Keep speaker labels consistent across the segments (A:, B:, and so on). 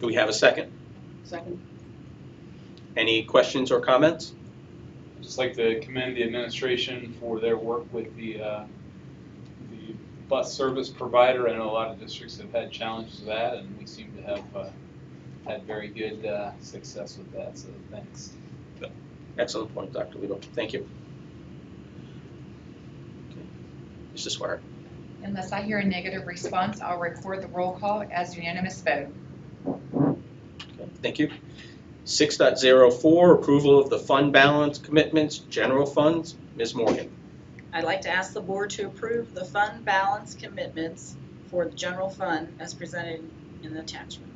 A: Do we have a second?
B: Second.
A: Any questions or comments?
C: I'd just like to commend the administration for their work with the, uh, the bus service provider. I know a lot of districts have had challenges with that, and we seem to have uh, had very good uh, success with that, so thanks.
A: Excellent point, Dr. Lebo. Thank you. Okay. Mr. Swire.
D: Unless I hear a negative response, I'll record the roll call as unanimous vote.
A: Okay, Thank you. 6.04 approval of the fund balance commitments, general funds. Ms. Morgan.
B: I'd like to ask the board to approve the fund balance commitments for the general fund as presented in the attachment.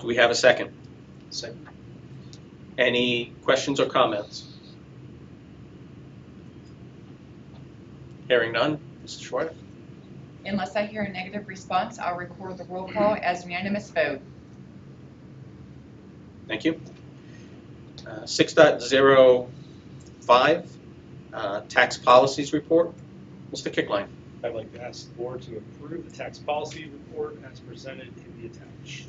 A: Do we have a second?
C: Second.
A: Any questions or comments? Hearing none. Mr. Schreier.
D: Unless I hear a negative response, I'll record the roll call as unanimous vote.
A: Thank you. Uh, 6.05, uh, tax policies report. Mr. Kickline.
E: I'd like to ask the board to approve the tax policy report as presented in the attached.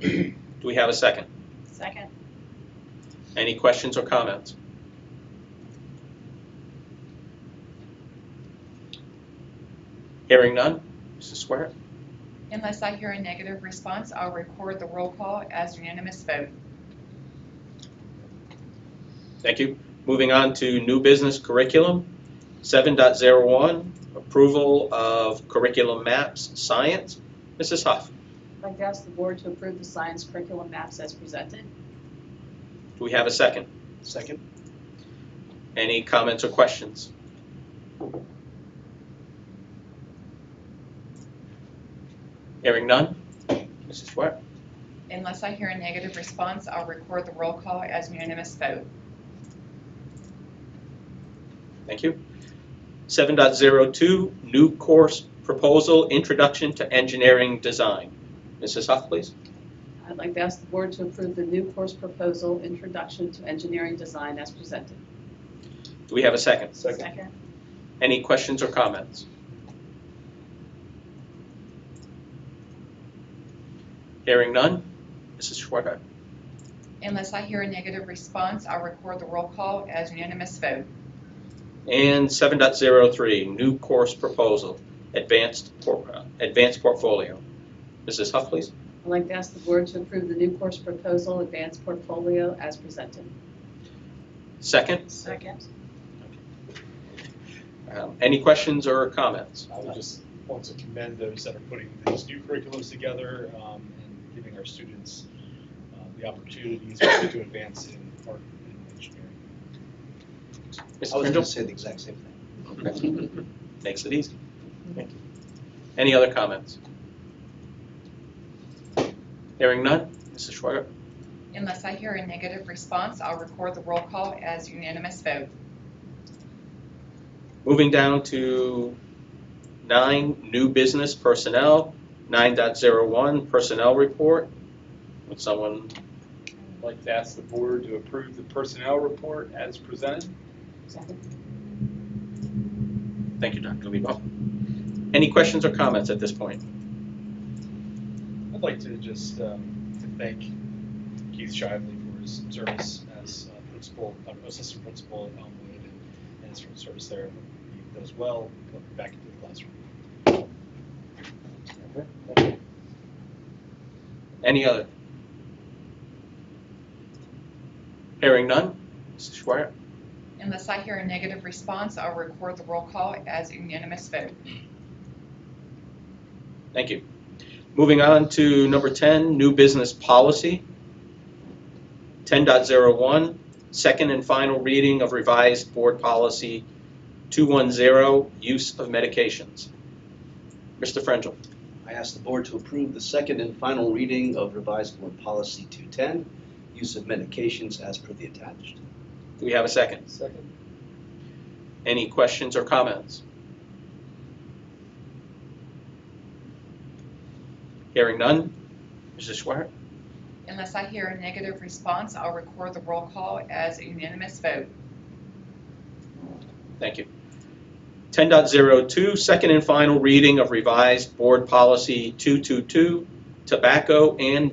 A: Do we have a second?
B: Second.
A: Any questions or comments? Hearing none, Mrs. Swear.
D: Unless I hear a negative response, I'll record the roll call as unanimous vote.
A: Thank you. Moving on to new business curriculum, 7.01, approval of curriculum maps, science. Mrs. Huff,
B: I'd like to ask the board to approve the science curriculum maps as presented.
A: do we have a second?
C: Second.
A: Any comments or questions? Hearing none, Mrs. Swear.
D: Unless I hear a negative response, I'll record the roll call as unanimous vote.
A: Thank you. 7.02, new course proposal, introduction to engineering design. Mrs. Huff, please.
B: I'd like to ask the board to approve the new course proposal, Introduction to Engineering Design, as presented.
A: Do we have a second?
B: Second.
A: Any questions or comments? Hearing none. Mrs. Schwartz.
D: Unless I hear a negative response, I'll record the roll call as unanimous vote.
A: And 7.03, new course proposal, advanced, por- uh, advanced portfolio. Mrs. Huff, please.
B: I'd like to ask the board to approve the new course proposal, Advanced Portfolio, as presented.
A: Second.
B: Second.
A: Um, Any questions or comments?
F: I would just want to commend those that are putting these new curriculums together um, and giving our students uh, the opportunities to advance in art and engineering.
A: Mr.
G: I was
A: Crandall?
G: going to say the exact same thing.
A: Makes it easy. Thank you. Any other comments? Hearing none, Mrs. Schwager.
D: Unless I hear a negative response, I'll record the roll call as unanimous vote.
A: Moving down to nine, new business personnel, nine point zero one personnel report. Would someone,
C: I'd like to ask the board to approve the personnel report as presented.
B: Second.
A: thank you, Dr. Lebo. Any questions or comments at this point?
F: I'd like to just um, to thank Keith Shively for his service as uh, principal, uh, assistant principal at Elmwood and his service there. He does well, he'll be back into the classroom.
A: Any other? Hearing none, Mrs. Schwager.
D: Unless I hear a negative response, I'll record the roll call as unanimous vote.
A: Thank you. Moving on to number 10, new business policy. 10.01, second and final reading of revised board policy 210, use of medications. Mr. Frangel,
G: I ask the board to approve the second and final reading of revised board policy 210, use of medications as per the attached.
A: do we have a second?
C: Second.
A: Any questions or comments? Hearing none, Mrs. Schwer.
D: Unless I hear a negative response, I'll record the roll call as a unanimous vote.
A: Thank you. 10.02, second and final reading of revised board policy 222, tobacco and